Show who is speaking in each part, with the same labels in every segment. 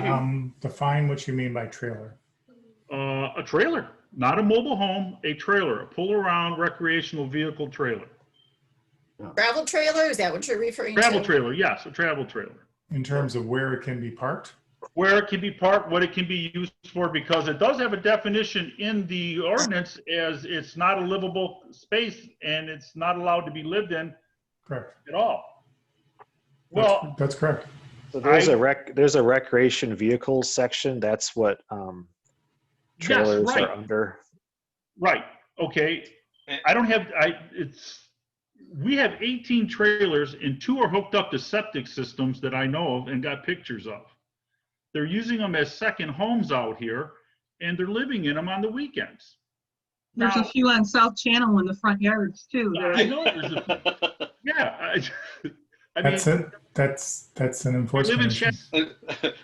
Speaker 1: Um, define what you mean by trailer.
Speaker 2: Uh, a trailer, not a mobile home, a trailer, a pull-around recreational vehicle trailer.
Speaker 3: Gravel trailer, is that what you're referring to?
Speaker 2: Travel trailer, yes, a travel trailer.
Speaker 1: In terms of where it can be parked?
Speaker 2: Where it can be parked, what it can be used for, because it does have a definition in the ordinance as it's not a livable space and it's not allowed to be lived in
Speaker 1: Correct.
Speaker 2: at all.
Speaker 1: That's-
Speaker 2: Well,
Speaker 1: That's correct.
Speaker 4: So there's
Speaker 2: I-
Speaker 4: a rec, there's a recreation vehicles section. That's what um,
Speaker 2: yes,
Speaker 4: trailers
Speaker 2: right.
Speaker 4: are under.
Speaker 2: Right, okay.
Speaker 5: Eh.
Speaker 2: I don't have, I, it's, we have 18 trailers and two are hooked up to septic systems that I know of and got pictures of. They're using them as second homes out here and they're living in them on the weekends.
Speaker 6: There's a
Speaker 2: Now-
Speaker 6: few on South Channel in the front yards too. that
Speaker 2: I know there's a, yeah. I- I mean,
Speaker 1: That's it. That's, that's an
Speaker 2: I live
Speaker 1: enforcement
Speaker 2: in
Speaker 1: issue.
Speaker 2: Shasta,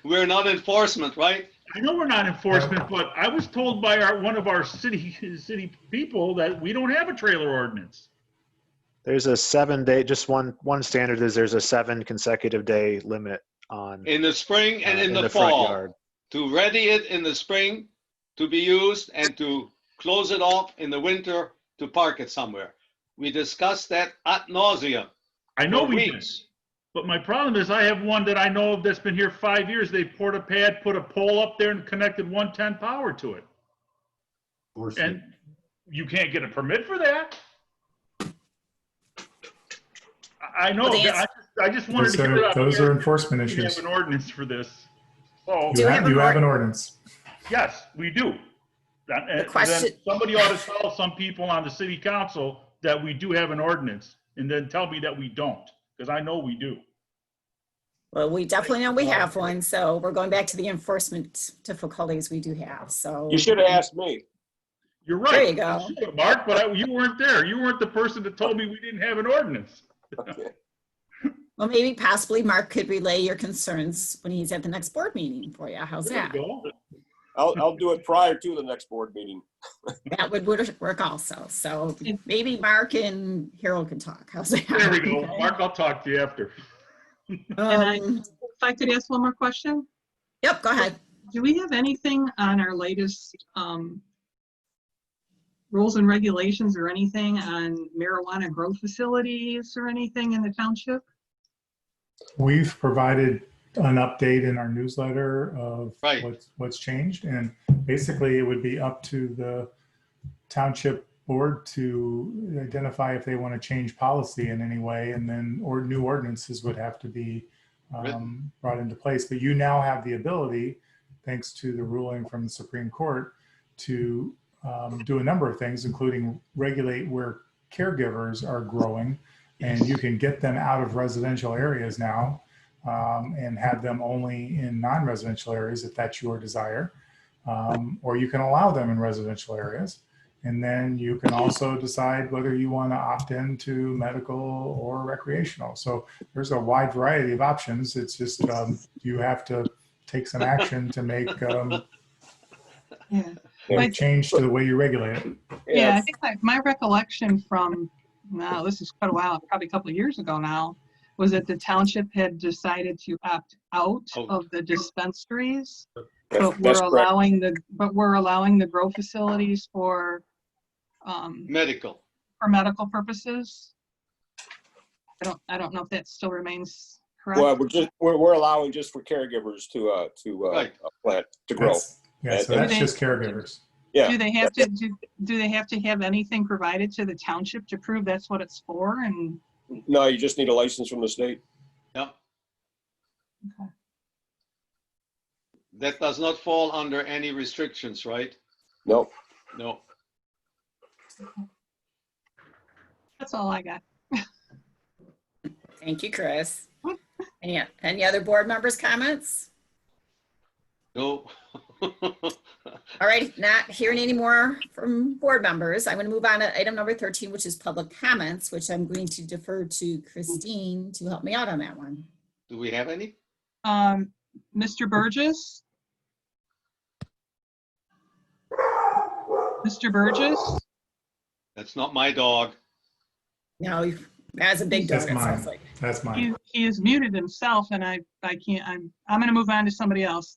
Speaker 5: We're not enforcement, right?
Speaker 2: I know we're not enforcement, but I was told by our, one of our city, city people that we don't have a trailer ordinance.
Speaker 4: There's a seven day, just one, one standard is there's a seven consecutive day limit on.
Speaker 5: In the spring and
Speaker 4: uh,
Speaker 5: in the
Speaker 4: front
Speaker 5: fall.
Speaker 4: yard.
Speaker 5: To ready it in the spring to be used and to close it off in the winter to park it somewhere. We discussed that ad nauseum
Speaker 2: I know
Speaker 5: for
Speaker 2: we did.
Speaker 5: weeks.
Speaker 2: But my problem is I have one that I know of that's been here five years. They poured a pad, put a pole up there and connected 110 power to it. And you can't get a permit for that. I- I know,
Speaker 3: Well, the
Speaker 2: I, I just wanted
Speaker 1: Those
Speaker 2: to get it
Speaker 1: are,
Speaker 2: out
Speaker 1: those are
Speaker 2: there.
Speaker 1: enforcement
Speaker 2: We
Speaker 1: issues.
Speaker 2: have an ordinance for this. So,
Speaker 3: Do
Speaker 1: You
Speaker 3: we have
Speaker 1: have,
Speaker 3: an
Speaker 1: you have
Speaker 3: ord-
Speaker 1: an ordinance.
Speaker 2: yes, we do. That- and then
Speaker 3: question-
Speaker 2: Somebody ought to tell some people on the city council that we do have an ordinance and then tell me that we don't, because I know we do.
Speaker 3: Well, we definitely know we have one, so we're going back to the enforcement difficulties we do have, so.
Speaker 7: You should have asked me.
Speaker 2: You're
Speaker 3: There
Speaker 2: right.
Speaker 3: you go.
Speaker 2: should have, Mark, but I- you weren't there. You weren't the person that told me we didn't have an ordinance.
Speaker 3: Well, maybe possibly Mark could relay your concerns when he's at the next board meeting for you. How's
Speaker 2: There
Speaker 3: that?
Speaker 2: you go.
Speaker 7: I'll, I'll do it prior to the next board meeting.
Speaker 3: That would, would work also. So maybe Mark and Harold can talk. How's that?
Speaker 2: There we go. Mark, I'll talk to you after.
Speaker 3: Um,
Speaker 6: If I could ask one more question?
Speaker 3: Yep, go ahead.
Speaker 6: Do we have anything on our latest um, rules and regulations or anything on marijuana grow facilities or anything in the township?
Speaker 1: We've provided an update in our newsletter of
Speaker 5: Right.
Speaker 1: what's, what's changed. And basically, it would be up to the township board to identify if they want to change policy in any way. And then, or new ordinances would have to be um, brought into place. But you now have the ability, thanks to the ruling from the Supreme Court, to um, do a number of things, including regulate where caregivers are growing. And you can get them out of residential areas now um, and have them only in non-residential areas if that's your desire. Um, or you can allow them in residential areas. And then you can also decide whether you want to opt in to medical or recreational. So there's a wide variety of options. It's just um, you have to take some action to make um,
Speaker 6: Yeah.
Speaker 1: make change to the way you regulate it.
Speaker 6: Yeah, I think like my recollection from, now this is quite a while, probably a couple of years ago now, was that the township had decided to opt out
Speaker 5: Out.
Speaker 6: of the dispensaries.
Speaker 7: That's-
Speaker 6: But Oh, we're
Speaker 7: that's correct.
Speaker 6: allowing the, but we're allowing the grow facilities for, um,
Speaker 5: Medical.
Speaker 6: for medical purposes. I don't, I don't know if that still remains
Speaker 7: Well,
Speaker 6: correct.
Speaker 7: we're just, we're, we're allowing just for caregivers to, uh, to, uh,
Speaker 5: Right.
Speaker 7: plant, to grow.
Speaker 1: That's, yeah, so that's just caregivers.
Speaker 7: Yeah.
Speaker 6: Do they have to, do, do they have to have anything provided to the township to prove that's what it's for and?
Speaker 7: No, you just need a license from the state.
Speaker 5: Yep.
Speaker 6: Okay.
Speaker 5: That does not fall under any restrictions, right?
Speaker 7: No.
Speaker 5: No.
Speaker 6: That's all I got.
Speaker 3: Thank you, Chris. Any, any other board members' comments?
Speaker 5: No.
Speaker 3: All right, not hearing any more from board members. I'm going to move on to item number 13, which is public comments, which I'm going to defer to Christine to help me out on that one.
Speaker 5: Do we have any?
Speaker 6: Um, Mr. Burgess? Mr. Burgess?
Speaker 5: That's not my dog.
Speaker 3: No, you- that's a big dog.
Speaker 1: That's
Speaker 3: it
Speaker 1: mine.
Speaker 3: sounds like.
Speaker 1: That's mine.
Speaker 6: He, he has muted himself and I, I can't, I'm, I'm gonna move on to somebody else.